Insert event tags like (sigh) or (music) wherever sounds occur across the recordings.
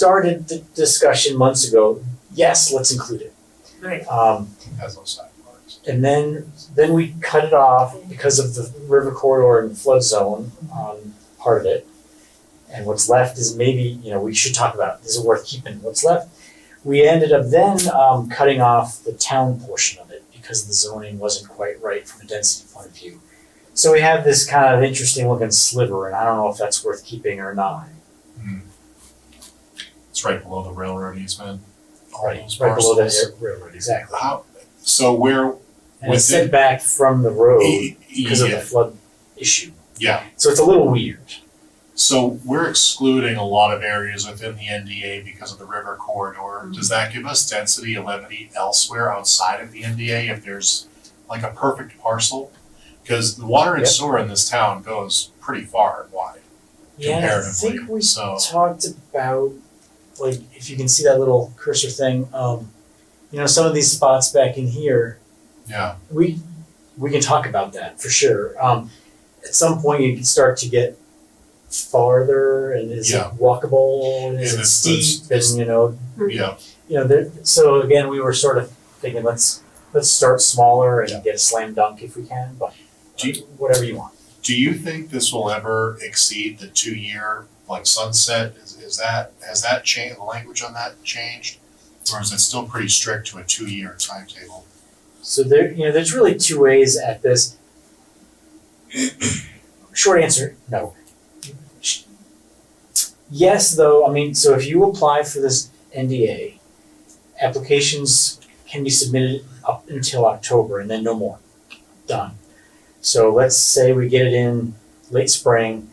started the discussion months ago, yes, let's include it. Right. Um, has no sidewalks. and then, then we cut it off because of the river corridor and flood zone on part of it. And what's left is maybe, you know, we should talk about, is it worth keeping what's left? We ended up then um cutting off the town portion of it because the zoning wasn't quite right from a density point of view. So we have this kind of interesting looking sliver and I don't know if that's worth keeping or not. Hmm. It's right below the railroad easement. all those Right below that parcels. air- railroad, exactly. How, so where, And it's Within- set back from the road e- Oh, because of the yeah, flood issue. yeah, So it's a little weird. so we're excluding a lot of areas within the NDA because of the river corridor. Mm-hmm. Does that give us density and levity elsewhere outside of the NDA if there's like a perfect parcel? Cause the water and Yeah. sewer in this town goes pretty far and wide Yeah, I think comparatively, we so. talked about, like, if you can see that little cursor thing, um, you know, some of these spots back in here, Yeah, we, we can talk about that for sure. Um, at some point you can start to get farther and is it Yeah. walkable and is And it it's- it's- steep and, you know, yeah, you know, there, so again, we were sort of thinking, let's, let's start smaller Yeah. and get a slam dunk if we can, but Do uh, whatever you want. do you think this will ever exceed the two-year like sunset? Is, is that, has that changed, the language on that changed? Or is it still pretty strict to a two-year timetable? So there, you know, there's really two ways at this. (coughs) Short answer, no. Yes, though, I mean, so if you apply for this NDA, applications can be submitted up until October and then no more. Done. So let's say we get it in late spring,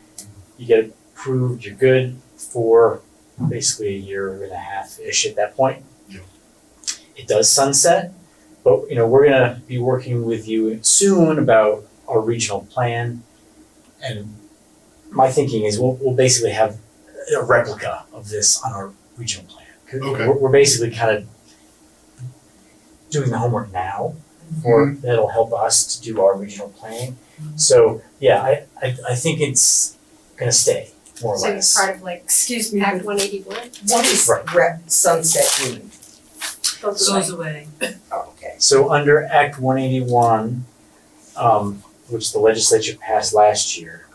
you get it approved, you're good for basically a year and a half-ish at that point. Yeah. It does sunset. But, you know, we're gonna be working with you soon about our regional plan. And my thinking is we'll, we'll basically have a replica of this on our regional plan. 'Cause Okay. We're, we're basically kind of doing the homework now for, Mm-hmm. that'll help us to do our regional planning. So, yeah, I, I, I think it's gonna stay, more or So it's less. Mm-hmm. part of like, excuse me, Act one eighty one, What is Right. rep sunset mean? goes away. goes away. Oh, okay. So under Act one eighty-one, um, which the legislature passed last year,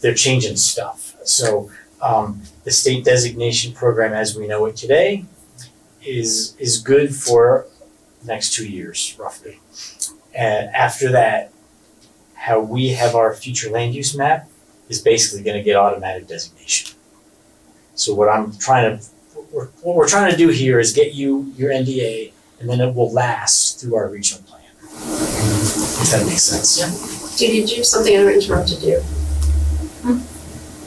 they're changing stuff. So, um, the state designation program as we know it today is, is good for the next two years roughly. And after that, how we have our future land use map is basically gonna get automatic designation. So what I'm trying to, what we're, what we're trying to do here is get you your NDA and then it will last through our regional plan. If that makes sense. Did you do something I interrupted you?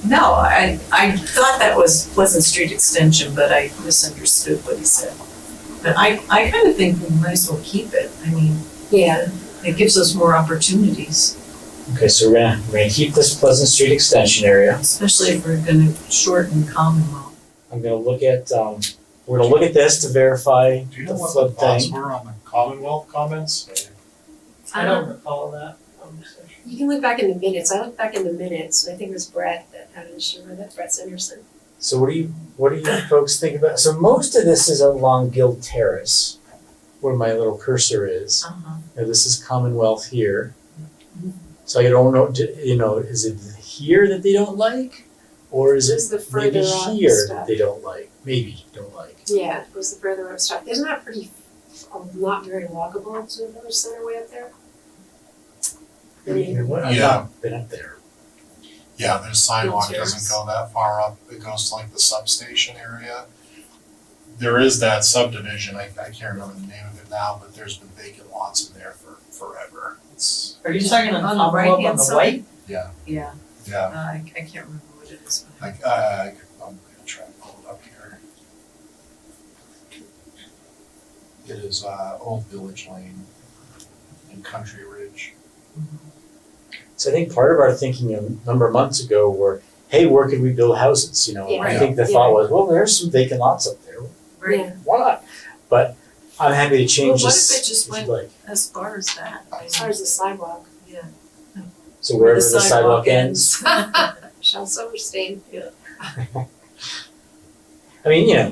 No, I, I thought that was Pleasant Street Extension, but I misunderstood what he said. But I, I kind of think we might as well keep it. I mean, Yeah. it gives us more opportunities, Okay, so we're gonna, we're gonna keep this Pleasant Street extension area. especially if we're gonna shorten Commonwealth. I'm gonna look at, um, we're gonna look at this to verify Do you know the what the flood thoughts thing. were on the Commonwealth comments? I don't recall that conversation. You can look back in the minutes, I looked back in the minutes, and I think it was Brett that had an issue with it, Brett Sanderson. So what do you, what do you folks think about, so most of this is along Guild Terrace, where my little cursor is. Uh-huh. Now this is Commonwealth here. So I don't know, do- you know, is it here that they don't like? Or is it It's the further maybe up here that stuff. they don't like, maybe don't like? Yeah, it was the further up stuff, isn't that pretty, um, not very walkable to the village center way up there? I mean, I've Yeah. not been up there. Yeah, their sidewalk Wheelchairs. doesn't go that far up, it goes to like the substation area. There is that subdivision, I, I can't remember the name of it now, but there's been vacant lots in there for forever. It's, Are you talking on On the top of up on right-hand the side? white? yeah, Yeah, uh, yeah, I, I can't remember what it is. but I- like, uh, I'm gonna try and pull it up here. It is, uh, Old Village Lane and Country Ridge. So I think part of our thinking a number of months ago were, hey, where could we build houses, you know? and I Yeah. think the thought was, well, there's some vacant lots up there, Right, why not? But I'm happy to Well, change what this if it just if you'd went- like. as far as that. I mean, As far as the sidewalk, Yeah. So wherever the sidewalk ends, ends. Shel Silverstein. I mean, you know,